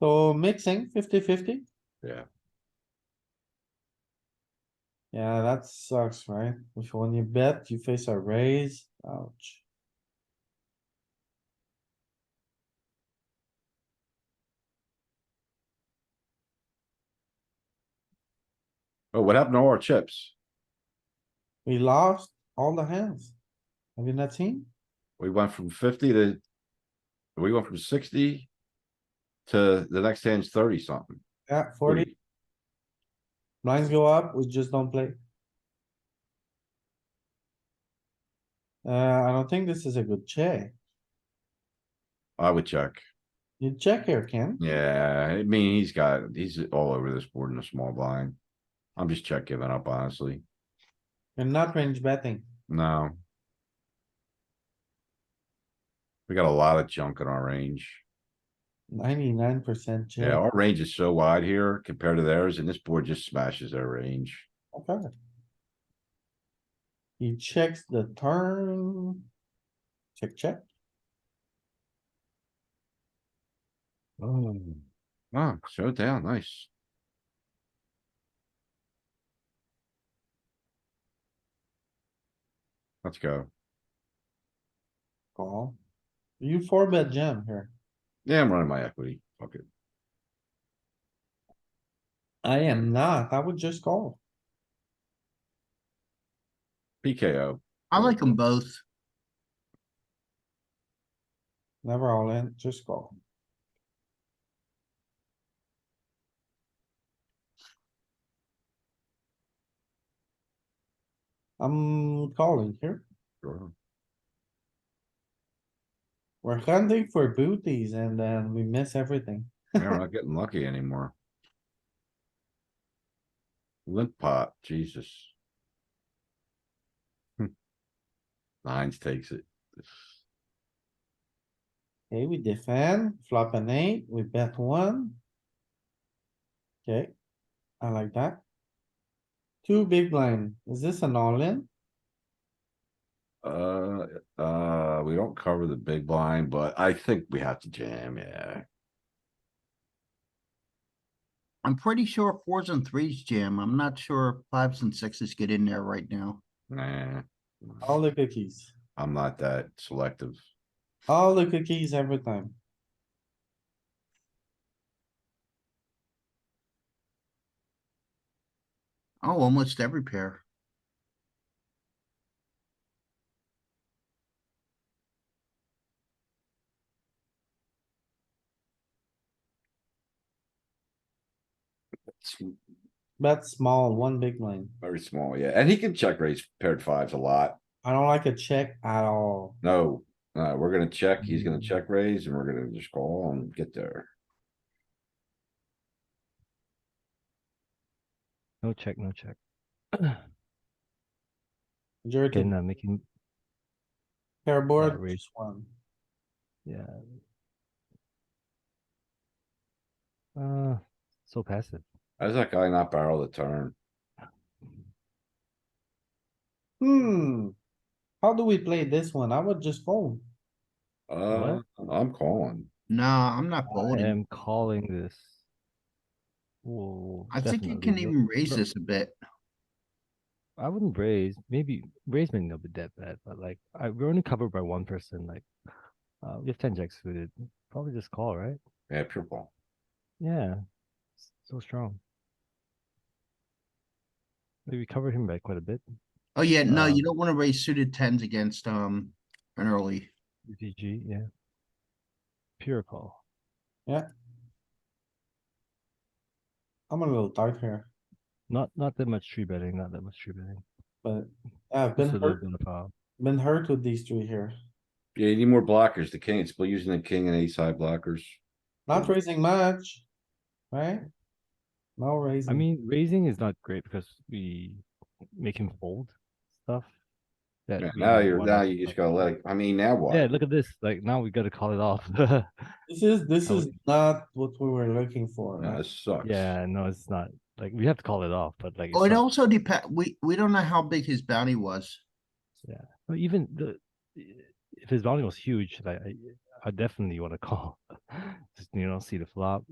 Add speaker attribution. Speaker 1: So mixing 50-50.
Speaker 2: Yeah.
Speaker 1: Yeah, that sucks, right? If when you bet, you face a raise, ouch.
Speaker 2: Oh, what happened to all our chips?
Speaker 1: We lost all the hands. Have you not seen?
Speaker 2: We went from fifty to. We went from sixty. To the next hand's thirty something.
Speaker 1: Yeah,
Speaker 2: Hmm.
Speaker 1: forty blinds go up, we just don't play. Uh, I don't think this is a good check.
Speaker 2: I would check.
Speaker 1: You check here, Ken.
Speaker 2: Yeah, I mean, he's got, he's all over this board in a small blind. I'm just check giving up honestly.
Speaker 1: You're not range betting.
Speaker 2: No. We got a lot of junk in our range.
Speaker 1: Ninety-nine percent
Speaker 2: Yeah,
Speaker 1: check.
Speaker 2: our range is so wide here compared to theirs and this board just smashes their range.
Speaker 1: Okay. He checks the turn. Check, check.
Speaker 2: Oh. Wow, showdown, nice. Let's go.
Speaker 1: Call. You four bet jam here.
Speaker 2: Yeah, I'm running my equity. Fuck it.
Speaker 1: I am not. I would just call.
Speaker 2: PKO.
Speaker 3: I like them both.
Speaker 1: Never all in, just call. I'm calling here.
Speaker 2: Sure.
Speaker 1: We're hunting for booties and then we miss everything.
Speaker 2: Yeah, We're not getting lucky anymore. Limp pot, Jesus. Hmm. Nines takes it.
Speaker 1: Okay, we defend, flop an eight, we bet one. Okay, I like that. Two big blind. Is this an all in?
Speaker 2: Uh, uh, we don't cover the big blind, but I think we have to jam, yeah.
Speaker 3: I'm pretty sure fours and threes jam. I'm not sure fives and sixes get in there right now.
Speaker 2: Nah.
Speaker 1: All the cookies.
Speaker 2: I'm not that selective.
Speaker 1: All Oh, the cookies every time.
Speaker 3: Oh, almost every pair.
Speaker 2: It's
Speaker 1: Bet small, one big blind.
Speaker 2: Very small, yeah, and he can check raise paired fives a lot.
Speaker 1: I don't like a check at all.
Speaker 2: No, uh, we're gonna check, he's
Speaker 4: Mm-hmm.
Speaker 2: gonna check raise and we're gonna just call and get there.
Speaker 4: No check, no check.
Speaker 1: Majority
Speaker 4: Again, uh, making,
Speaker 1: pair board,
Speaker 4: raise.
Speaker 1: just one.
Speaker 4: yeah. Uh, so passive.
Speaker 2: How's that guy not barrel the turn?
Speaker 1: Hmm. How do we play this one? I would just fold.
Speaker 2: Uh, I'm calling.
Speaker 3: No, I'm not
Speaker 4: I
Speaker 3: folding.
Speaker 4: am calling this. Whoa.
Speaker 3: I think you
Speaker 4: definitely
Speaker 3: can
Speaker 4: no-
Speaker 3: even raise
Speaker 4: no,
Speaker 3: this a bit.
Speaker 4: I wouldn't raise, maybe raise may not be that bad, but like, I, we're only covered by one person, like. Uh, we have ten jacks suited, probably just call, right?
Speaker 2: Yeah, pure ball.
Speaker 4: Yeah. s- So strong. Like, We covered him by quite a bit.
Speaker 3: Oh, yeah, no, you
Speaker 4: Uh,
Speaker 3: don't wanna raise suited tens against, um, an early.
Speaker 4: UTG, yeah. Pure call.
Speaker 1: I'm a little tight here,
Speaker 4: Not not that much tree betting, not that much tree betting.
Speaker 1: but I've been
Speaker 4: Just a little
Speaker 1: hurt,
Speaker 4: bit of uh,
Speaker 1: been hurt with these three here.
Speaker 2: Yeah, you need more blockers. The king, it's still using the king and ace high blockers.
Speaker 1: Not raising much, right? No raising.
Speaker 4: I mean, raising is not great because we make him fold stuff. That
Speaker 2: Yeah,
Speaker 4: we
Speaker 2: Now
Speaker 4: don't
Speaker 2: you're,
Speaker 4: wanna-
Speaker 2: now you just gotta let it, I mean, now what?
Speaker 4: Yeah, look at this. Like now we gotta call it off.
Speaker 1: This is, this
Speaker 4: I
Speaker 1: is not what we were looking for.
Speaker 2: Yeah,
Speaker 1: right?
Speaker 2: This sucks.
Speaker 4: yeah, no, it's not. Like we have to call it off, but like
Speaker 3: Oh,
Speaker 4: it's
Speaker 3: it
Speaker 4: not-
Speaker 3: also depend, we, we don't know how big his bounty was.
Speaker 4: no, even the if his bounty was huge, like I, I definitely want to call. Just, you know, see the flop.